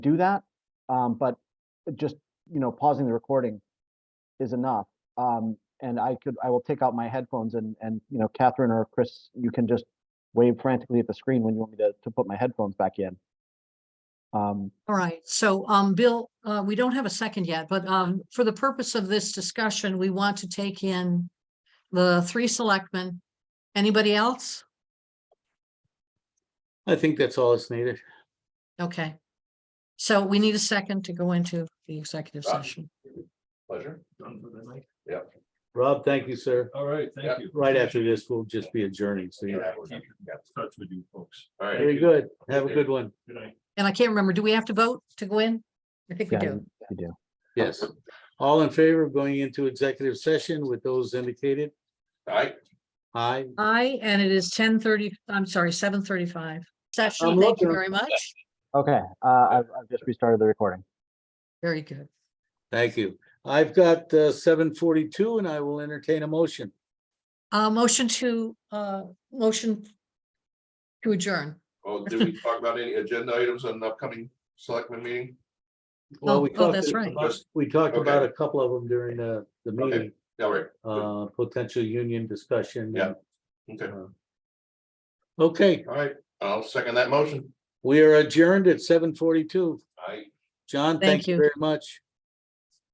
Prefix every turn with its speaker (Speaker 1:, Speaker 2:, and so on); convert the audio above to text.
Speaker 1: do that. Um, but just, you know, pausing the recording is enough. Um, and I could, I will take out my headphones and, and, you know, Catherine or Chris, you can just wave frantically at the screen when you want me to, to put my headphones back in. Um,
Speaker 2: All right, so, um, Bill, uh, we don't have a second yet, but, um, for the purpose of this discussion, we want to take in the three selectmen. Anybody else?
Speaker 3: I think that's all that's needed.
Speaker 2: Okay. So we need a second to go into the executive
Speaker 4: Right.
Speaker 2: session.
Speaker 4: Pleasure.
Speaker 3: Rob, thank you, sir.
Speaker 5: All right,
Speaker 4: Yeah.
Speaker 5: thank you.
Speaker 3: Right after this, we'll just be adjourning. So
Speaker 5: Yeah,
Speaker 3: you
Speaker 5: we'll keep in Touch with you folks.
Speaker 4: All right.
Speaker 3: very good. Have a good one.
Speaker 5: Good night.
Speaker 2: And I can't remember, do we have to vote to go in? I think we
Speaker 1: yeah,
Speaker 2: do.
Speaker 1: you you do.
Speaker 3: Yes. All in favor of going into executive session with those indicated?
Speaker 4: All right.
Speaker 3: Aye.
Speaker 2: Aye, and it is ten thirty, I'm sorry, seven thirty-five. Session,
Speaker 3: I'm
Speaker 2: thank you
Speaker 3: looking.
Speaker 2: very much.
Speaker 1: Okay, uh, I've, I've just restarted the recording.
Speaker 2: Very good.
Speaker 3: Thank you. I've got uh, seven forty-two and I will entertain a motion.
Speaker 2: Uh, motion to, uh, motion to adjourn.
Speaker 4: Well, did we talk about any agenda items on the upcoming selectmen meeting?
Speaker 3: Well,
Speaker 2: Oh,
Speaker 3: we
Speaker 2: oh,
Speaker 3: talked
Speaker 2: that's
Speaker 3: about-
Speaker 4: right.
Speaker 3: We talked
Speaker 4: Okay.
Speaker 3: about a couple of them during the, the
Speaker 4: Okay.
Speaker 3: meeting,
Speaker 4: Yeah, all right. Good.
Speaker 3: uh, potential union discussion.
Speaker 4: Yeah. Okay.
Speaker 3: Okay,
Speaker 4: All right. I'll second that motion.
Speaker 3: we are adjourned at seven forty-two.
Speaker 4: All right.
Speaker 3: John,
Speaker 2: Thank
Speaker 3: thank you
Speaker 2: you.
Speaker 3: very much.